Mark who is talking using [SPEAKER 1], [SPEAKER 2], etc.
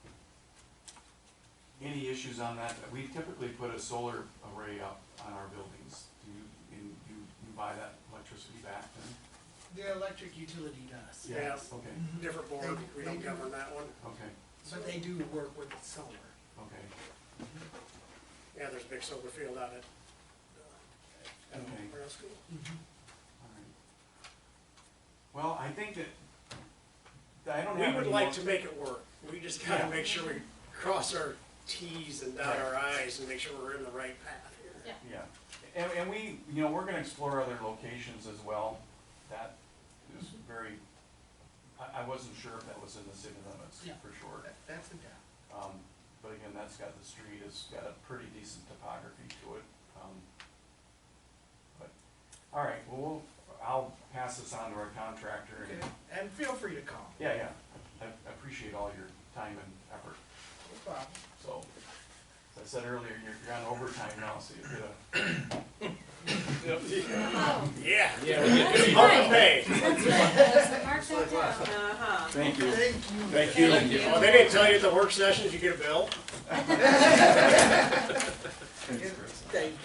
[SPEAKER 1] any issues on that? We typically put a solar array up on our buildings. Do you, and you, you buy that electricity back then?
[SPEAKER 2] The electric utility does.
[SPEAKER 3] Yeah.
[SPEAKER 1] Okay,
[SPEAKER 3] Different board, we don't govern that one.
[SPEAKER 1] okay,
[SPEAKER 2] But they do work with solar.
[SPEAKER 1] okay,
[SPEAKER 3] Yeah, there's a big solar field out at, uh, at
[SPEAKER 1] Okay.
[SPEAKER 3] Rail School.
[SPEAKER 1] all right. Well, I think that, I don't have
[SPEAKER 3] We
[SPEAKER 1] any.
[SPEAKER 3] would like
[SPEAKER 1] more-
[SPEAKER 3] to make it work. We just gotta
[SPEAKER 1] Yeah.
[SPEAKER 3] make sure we cross our Ts and dot our Is and make sure we're in the right path here.
[SPEAKER 4] Yeah.
[SPEAKER 1] Yeah, and, and we, you know, we're gonna explore other locations as well. That is very, I, I wasn't sure if that was in the city limits,
[SPEAKER 2] Yeah.
[SPEAKER 1] for sure.
[SPEAKER 2] That- That's a doubt.
[SPEAKER 1] Um, but again, that's got, the street has got a pretty decent topography to it. Um, But, all right, well, we'll, I'll pass this on to our contractor and,
[SPEAKER 2] Okay. And feel free to call.
[SPEAKER 1] yeah, yeah. I I appreciate all your time and effort,
[SPEAKER 2] No problem.
[SPEAKER 1] so. As I said earlier, you're, you're on overtime now, so you get a,
[SPEAKER 4] Oh,
[SPEAKER 3] Yeah.
[SPEAKER 5] Yeah, we get
[SPEAKER 4] That's
[SPEAKER 3] Overpay.
[SPEAKER 4] that's right. Mark that down.
[SPEAKER 6] Uh-huh.
[SPEAKER 5] Thank you.
[SPEAKER 2] Thank you.
[SPEAKER 5] Thank
[SPEAKER 4] Thank
[SPEAKER 3] Well, Oh, they didn't tell you at the work sessions, you get a bill?
[SPEAKER 2] Thank